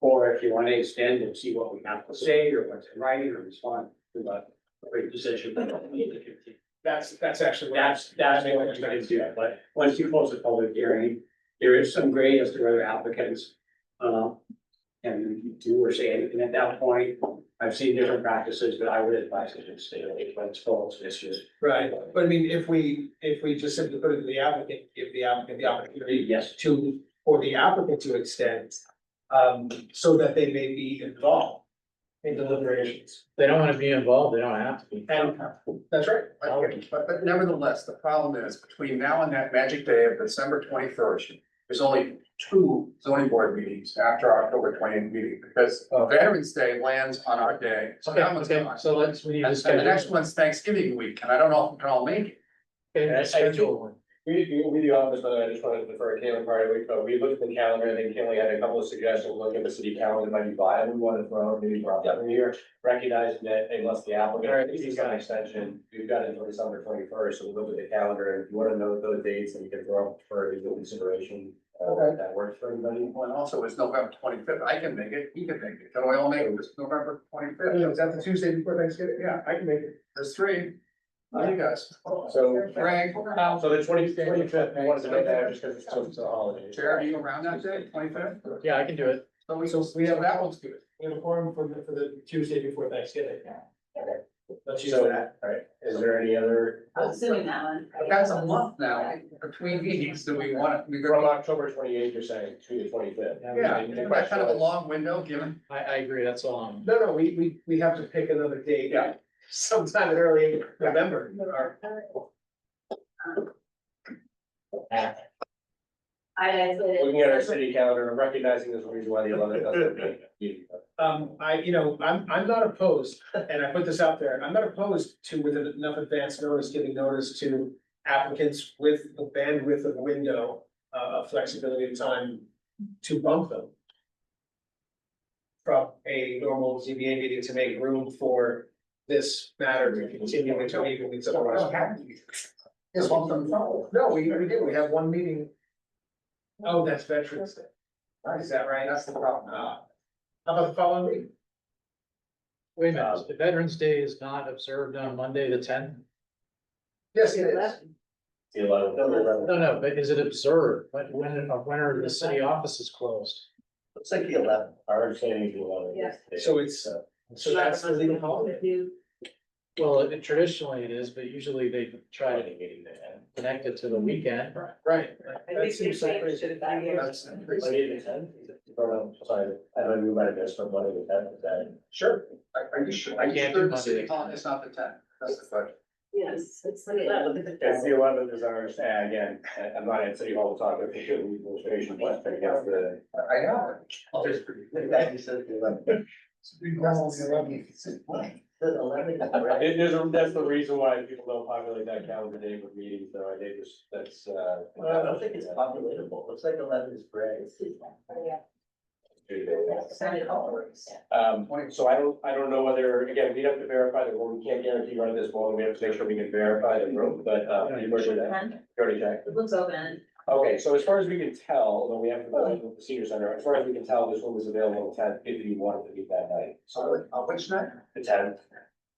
Or if you want to extend and see what we have to say or what's in writing or respond to a great position. That's, that's actually. what I- That's, that's what you can do, but once you close the public hearing, there is some gray as to whether applicants. Uh, can do or say anything at that point. I've seen different practices, but I would advise that it stay away from its faults, it's just. Right, but I mean, if we, if we just simply put it to the applicant, give the applicant the opportunity Yes, to, for the applicant to extend. Um, so that they may be involved in deliberations. They don't wanna be involved, they don't have to be. And that's right. Okay. But, but nevertheless, the problem is between now and that magic day of December twenty-first, there's only two zoning board meetings after our October twentieth meeting, because Veterans Day lands on our day, so Oh. Okay, that one's okay, gone. so let's, we need And to and the next schedule. one's Thanksgiving week, and I don't know if we can all make it. Okay, schedule one. We, we, we do have this, but I just wanted to defer to Caitlin prior week, but we looked at the calendar, and then Caitlin had a couple of suggestions, look at the city calendar, might be viable, we wanted to throw, out, maybe brought up here. Recognizing that unless the Alright, applicant, if he's got an extension, we've got until December twenty first, so we look at the calendar, and if you wanna know those dates, then you can throw up for your consideration. Uh, if that works for everybody. Well, and also it's November twenty-fifth, I can make it, he can make it, can we all make it, it's November twenty-fifth, Is that the Tuesday before Thanksgiving? yeah, I can make it, there's three, How do you guys. So, Frank, so the twenty, twenty fifth, I wanted to know that just because it's close to the holidays. Chair, are you around that day, twenty-fifth? Yeah, I can do it. So we, so that one's good. We have a forum for the, for the Tuesday before Thanksgiving. Let's use So, that. alright, is there any other? I'm assuming that one. But That's a month now between meetings, do we want to, we From go, October twenty eighth, you're saying, to the twenty fifth? yeah, isn't that kind of a long window given. I, I agree, that's all I'm. No, no, we, we, we have to pick another date. Yeah. Sometime early November. or- I isolated. Looking at our city calendar and recognizing there's a reason why the eleventh doesn't meet. Um, I, you know, I'm, I'm not opposed, and I put this out there, I'm not opposed to with enough advance notice, giving notice to applicants with the bandwidth of window, uh, of flexibility of time to bump them. From a normal ZBA meeting to make room for this matter to continue until even it's otherwise. It's one from the phone. No, we, we did, we have one meeting. Oh, that's Veterans Day. Is that right? That's the problem. Ah. How about the following week? Wait a minute, the Veterans Day is not observed on Monday, the tenth? Yes, it is. The eleventh, no, the Uh, eleventh. No, no, but is it observed? When, when, when are the city offices closed? Looks like the eleventh. Our understanding is the eleventh. Yes. So it's, uh, so that's the legal holiday. Well, it- traditionally it is, but usually they try to connect it to the weekend. Right. I That think they seems like changed crazy. it that year. That's Monday the tenth? Oh, no, sorry, I don't know about this, but Monday the tenth is that. Sure. Are are you sure, are I you can't sure do the Monday. city hall is not the ten? That's the question. Yes, it's the eleven. It's the eleventh is our, uh, again, I- I'm not at city hall to talk about the administration, but I guess the. I I know. I'll just- That you said the eleventh. It is, that's the reason why people don't populate that calendar day with meetings, though, I think it's, that's, uh. Well, I don't think it's populatable, looks like eleven is gray. Um, so I don't, I don't know whether, again, we'd have to verify the room, we can't guarantee run this long, we have to make sure we can verify the room, but, uh, we were sure that, Jody checked. It looks open. Okay, so as far as we can tell, though we have to go to the senior center, as far as we can tell, this room is available at ten, if you wanted to meet that night, so, So, uh, which night? the tenth.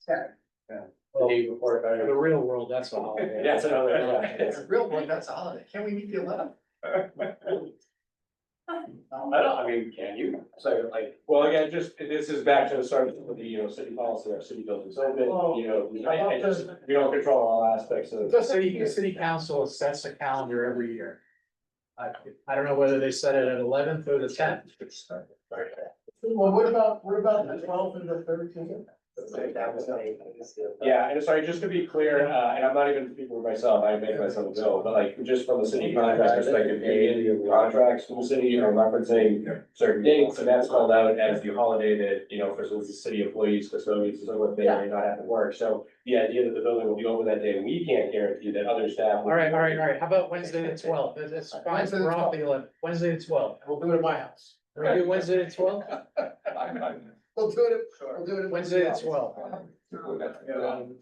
Ten. The day before, if I For remember. the real world, that's all. That's another, It's a real one, that's a holiday. Can we meet the eleventh? I don't, I mean, can you? So like, well, again, just, this is back to the start of the, you know, city policy, our city buildings open, you know, I, I just, we don't control all aspects of. The city, the city council sets a calendar every year. I, I don't know whether they set it at eleventh or the tenth. Well, what about, what about the twelfth and the thirteenth? Yeah, and sorry, just to be clear, uh, and I'm not even speaking for myself, I make myself ill, but like, just from the city contract perspective, any of the contracts from the city are referencing certain dates, and that's called out as the holiday that, you know, for some of the city employees, custodians, and so forth, they may not have to work, so the idea that the building will be open that day, we can't guarantee that other staff. All right, all right, all right. How about Wednesday the twelfth? That's fine. Wednesday the We're off the eleventh. Wednesday the twelfth. We'll do it at my house. Can we do Wednesday the twelfth? We'll do it, we'll do it. Wednesday at 12.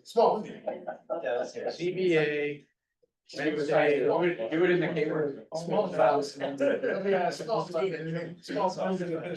Small. CBA. Wednesday. Do it in the Cape. Small. Small house. Yeah, small. Small.